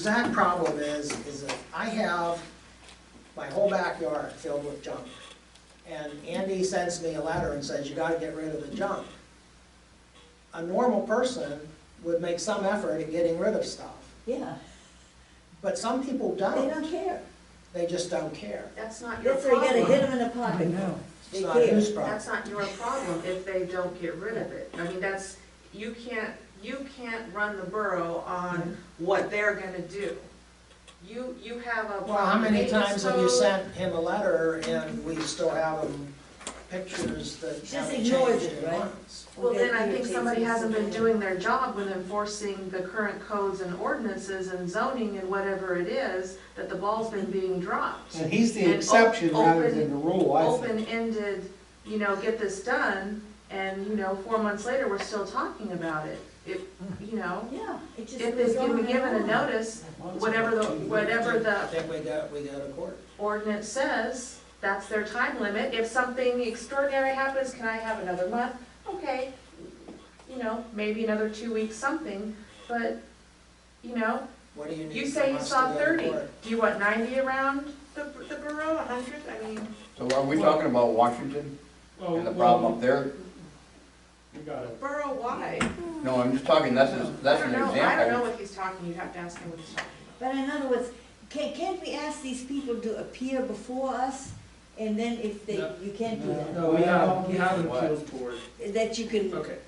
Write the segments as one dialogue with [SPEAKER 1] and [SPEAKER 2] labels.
[SPEAKER 1] exact problem is, is that I have my whole backyard filled with junk. And Andy sends me a letter and says, you gotta get rid of the junk. A normal person would make some effort at getting rid of stuff,
[SPEAKER 2] Yeah,
[SPEAKER 1] but some people
[SPEAKER 2] they
[SPEAKER 1] don't,
[SPEAKER 2] don't care.
[SPEAKER 1] they just don't care.
[SPEAKER 3] That's not your
[SPEAKER 2] That's why you gotta
[SPEAKER 3] problem.
[SPEAKER 2] hit them in the pocket.
[SPEAKER 1] It's
[SPEAKER 2] They
[SPEAKER 1] not
[SPEAKER 2] care.
[SPEAKER 1] whose problem.
[SPEAKER 3] That's not your problem if they don't get rid of it. I mean, that's, you can't, you can't run the borough on what they're gonna do. You, you have a.
[SPEAKER 1] Well, how many
[SPEAKER 3] maintenance
[SPEAKER 1] times have you
[SPEAKER 3] code.
[SPEAKER 1] sent him a letter and we still have him pictures that
[SPEAKER 2] Just
[SPEAKER 1] haven't
[SPEAKER 2] ignore
[SPEAKER 1] changed
[SPEAKER 2] it,
[SPEAKER 1] in
[SPEAKER 2] right?
[SPEAKER 1] months?
[SPEAKER 3] Well, then I think somebody hasn't been doing their job with enforcing the current codes and ordinances and zoning and whatever it is, that the ball's been being dropped.
[SPEAKER 4] And he's the
[SPEAKER 3] And o-
[SPEAKER 4] exception rather
[SPEAKER 3] open-
[SPEAKER 4] than the rule, I think.
[SPEAKER 3] open-ended, you know, get this done, and, you know, four months later, we're still talking about it. If, you know,
[SPEAKER 2] Yeah, it just
[SPEAKER 3] if
[SPEAKER 2] goes
[SPEAKER 3] it's given,
[SPEAKER 2] on
[SPEAKER 3] given a
[SPEAKER 2] and on.
[SPEAKER 3] notice, whatever the, whatever
[SPEAKER 1] I
[SPEAKER 3] the
[SPEAKER 1] think we got, we got a court.
[SPEAKER 3] ordinance says, that's their time limit. If something extraordinary happens, can I have another month? Okay, you know, maybe another two weeks, something, but, you know,
[SPEAKER 1] What do you need
[SPEAKER 3] you say
[SPEAKER 1] from
[SPEAKER 3] you
[SPEAKER 1] us to
[SPEAKER 3] saw
[SPEAKER 1] go to
[SPEAKER 3] thirty.
[SPEAKER 1] court?
[SPEAKER 3] Do you want ninety around the, the borough, a hundred? I mean,
[SPEAKER 5] So are we talking about Washington
[SPEAKER 6] Oh, Well,
[SPEAKER 5] and the problem up
[SPEAKER 6] well,
[SPEAKER 5] there?
[SPEAKER 6] we got it.
[SPEAKER 3] borough-wide.
[SPEAKER 5] No, I'm just talking, that's, a- that's an
[SPEAKER 3] I don't know, I don't know
[SPEAKER 5] example.
[SPEAKER 3] what he's talking, you'd have to ask him what he's talking
[SPEAKER 2] But in other words, can, can't we ask these people to appear before us? And then if they,
[SPEAKER 6] No.
[SPEAKER 2] you can't do that,
[SPEAKER 6] No, we have, we have an
[SPEAKER 5] What?
[SPEAKER 6] appeals board.
[SPEAKER 2] that you can.
[SPEAKER 6] Okay,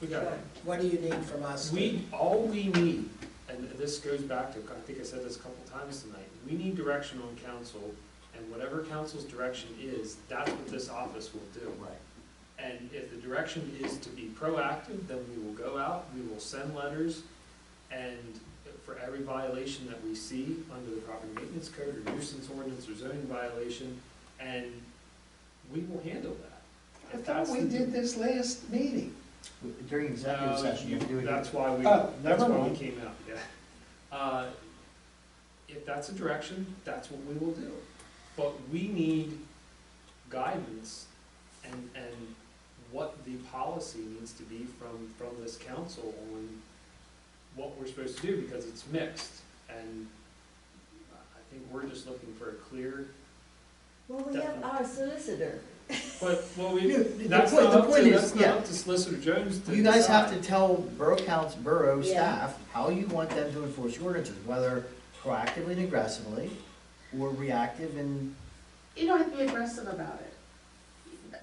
[SPEAKER 6] we got it.
[SPEAKER 1] What do you need from us?
[SPEAKER 6] We, all we need, and this goes back to, I think I said this a couple times tonight, we need direction on council, and whatever council's direction is, that's what this office will do. Right. And if the direction is to be proactive, then we will go out, we will send letters, and for every violation that we see under the property maintenance code or nuisance ordinance or zoning violation, and we will handle that.
[SPEAKER 4] I
[SPEAKER 6] If
[SPEAKER 4] thought
[SPEAKER 6] that's
[SPEAKER 4] we
[SPEAKER 6] the-
[SPEAKER 4] did this last meeting.
[SPEAKER 7] During executive
[SPEAKER 6] no,
[SPEAKER 7] session, you
[SPEAKER 6] you-
[SPEAKER 7] can do it.
[SPEAKER 6] That's why we,
[SPEAKER 4] Oh,
[SPEAKER 6] that's
[SPEAKER 4] never
[SPEAKER 6] why we
[SPEAKER 4] mind.
[SPEAKER 6] came out, yeah. Uh, If that's a direction, that's what we will do. But we need guidance and, and what the policy needs to be from, from this council on what we're supposed to do, because it's mixed. And I think we're just looking for a clear,
[SPEAKER 2] Well, we have our solicitor.
[SPEAKER 6] but, well, we,
[SPEAKER 7] No, the- the
[SPEAKER 6] that's
[SPEAKER 7] point-
[SPEAKER 6] not
[SPEAKER 7] the
[SPEAKER 6] up
[SPEAKER 7] point
[SPEAKER 6] to,
[SPEAKER 7] is,
[SPEAKER 6] that's not
[SPEAKER 7] yeah.
[SPEAKER 6] up to Solicitor Jones to
[SPEAKER 7] You guys have
[SPEAKER 6] decide.
[SPEAKER 7] to tell Borough Council, Borough
[SPEAKER 2] Yeah.
[SPEAKER 7] staff, how you want them to enforce your ordinances, whether proactively and aggressively, or reactive and,
[SPEAKER 3] You don't have to be aggressive about it.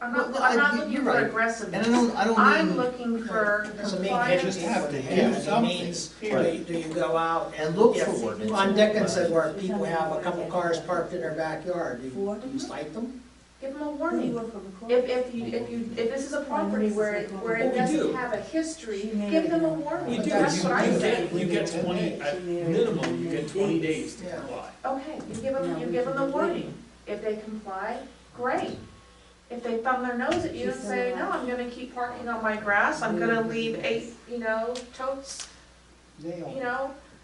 [SPEAKER 3] I'm not,
[SPEAKER 7] Well,
[SPEAKER 3] I'm
[SPEAKER 7] I-
[SPEAKER 3] not
[SPEAKER 7] you-
[SPEAKER 3] looking
[SPEAKER 7] you're
[SPEAKER 3] for
[SPEAKER 7] right.
[SPEAKER 3] aggressiveness.
[SPEAKER 7] and I don't, I don't
[SPEAKER 3] I'm
[SPEAKER 7] mean.
[SPEAKER 3] looking for
[SPEAKER 1] Doesn't mean you
[SPEAKER 3] compliance.
[SPEAKER 1] just have to
[SPEAKER 7] do
[SPEAKER 1] have, it
[SPEAKER 4] something,
[SPEAKER 1] means, do you,
[SPEAKER 4] period.
[SPEAKER 1] do you go out and
[SPEAKER 7] And look
[SPEAKER 1] look if,
[SPEAKER 7] for ordinance.
[SPEAKER 1] on Dickinson where people have a couple cars parked in their backyard, do you,
[SPEAKER 2] For?
[SPEAKER 1] do you cite them?
[SPEAKER 3] Give them a
[SPEAKER 2] You
[SPEAKER 3] warning.
[SPEAKER 2] work for the court.
[SPEAKER 3] If, if you, if you, if this is a property where, it- where
[SPEAKER 6] Well,
[SPEAKER 3] it
[SPEAKER 6] we
[SPEAKER 3] doesn't
[SPEAKER 6] do.
[SPEAKER 3] have a history,
[SPEAKER 2] She may
[SPEAKER 3] give them a
[SPEAKER 2] have-
[SPEAKER 3] warning.
[SPEAKER 6] We do,
[SPEAKER 3] That's what I
[SPEAKER 6] you
[SPEAKER 3] say.
[SPEAKER 6] get, you get twenty, at minimum, you get twenty days to
[SPEAKER 1] Yeah.
[SPEAKER 6] comply.
[SPEAKER 3] Okay, you give them, you give them the warning. If they comply, great. If they thumb their nose at you and say, no, I'm gonna keep parking on my grass, I'm gonna leave eight, you know, totes, you
[SPEAKER 4] Nailed.
[SPEAKER 3] know,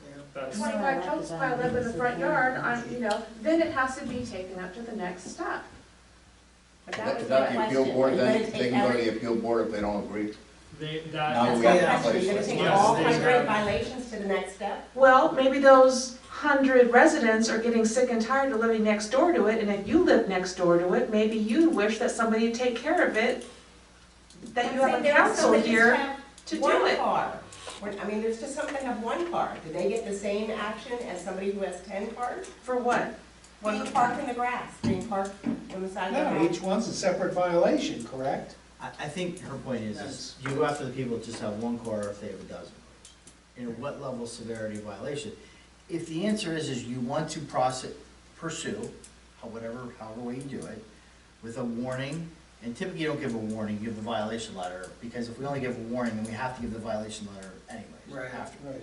[SPEAKER 1] Yeah.
[SPEAKER 6] That's,
[SPEAKER 3] twenty-five totes piled up in the front yard, I'm, you know, then it has to be taken up to the next step. But that
[SPEAKER 5] Is
[SPEAKER 3] was
[SPEAKER 5] that
[SPEAKER 3] my
[SPEAKER 5] the appeal
[SPEAKER 3] question.
[SPEAKER 5] board,
[SPEAKER 8] Let
[SPEAKER 5] then,
[SPEAKER 8] it
[SPEAKER 5] they can go to the appeal board if they don't agree?
[SPEAKER 6] they,
[SPEAKER 5] Now
[SPEAKER 6] that,
[SPEAKER 5] we
[SPEAKER 8] That's
[SPEAKER 5] have
[SPEAKER 8] my
[SPEAKER 5] to
[SPEAKER 8] question, you're gonna
[SPEAKER 5] place.
[SPEAKER 8] take
[SPEAKER 6] Yes,
[SPEAKER 8] all
[SPEAKER 6] they have-
[SPEAKER 8] hundred violations to the next step?
[SPEAKER 3] Well, maybe those hundred residents are getting sick and tired of living next door to it, and if you live next door to it, maybe you wish that somebody would take care of it, that you
[SPEAKER 8] I'm
[SPEAKER 3] have
[SPEAKER 8] saying
[SPEAKER 3] a
[SPEAKER 8] there are some
[SPEAKER 3] council
[SPEAKER 8] that just
[SPEAKER 3] here
[SPEAKER 8] have
[SPEAKER 3] to do
[SPEAKER 8] One
[SPEAKER 3] it.
[SPEAKER 8] car, When- I mean, there's just some that have one car, do they get the same action as somebody who has ten cars?
[SPEAKER 3] For what?
[SPEAKER 8] Being parked in the grass, being parked on the side of
[SPEAKER 4] No,
[SPEAKER 8] the road.
[SPEAKER 4] each one's a separate violation, correct?
[SPEAKER 7] I, I think her point is, is you go after the people that just have one car if they have a dozen. And what level of severity of violation? If the answer is, is you want to process, pursue, how- whatever, however way you do it, with a warning, and typically you don't give a warning, you give the violation letter, because if we only give a warning, then we have to give the violation letter
[SPEAKER 1] Right.
[SPEAKER 7] anyways, after.
[SPEAKER 4] Right.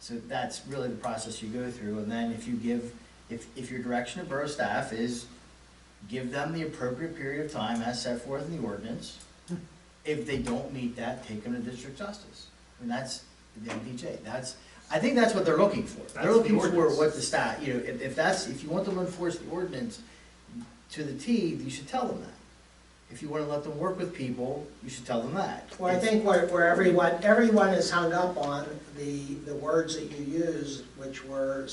[SPEAKER 7] So that's really the process you go through, and then if you give, if, if your direction to borough staff is give them the appropriate period of time as set forth in the ordinance, if they don't meet that, take them to district justice. And that's the MDJ, that's, I think that's what they're looking for. They're
[SPEAKER 6] That's the
[SPEAKER 7] looking for
[SPEAKER 6] ordinance.
[SPEAKER 7] what the stat, you know, if, if that's, if you want them to enforce the ordinance to the T, you should tell them that. If you wanna let them work with people, you should tell them that.
[SPEAKER 1] Well, I think where, where everyone, everyone is hung up on the, the words that you use, which were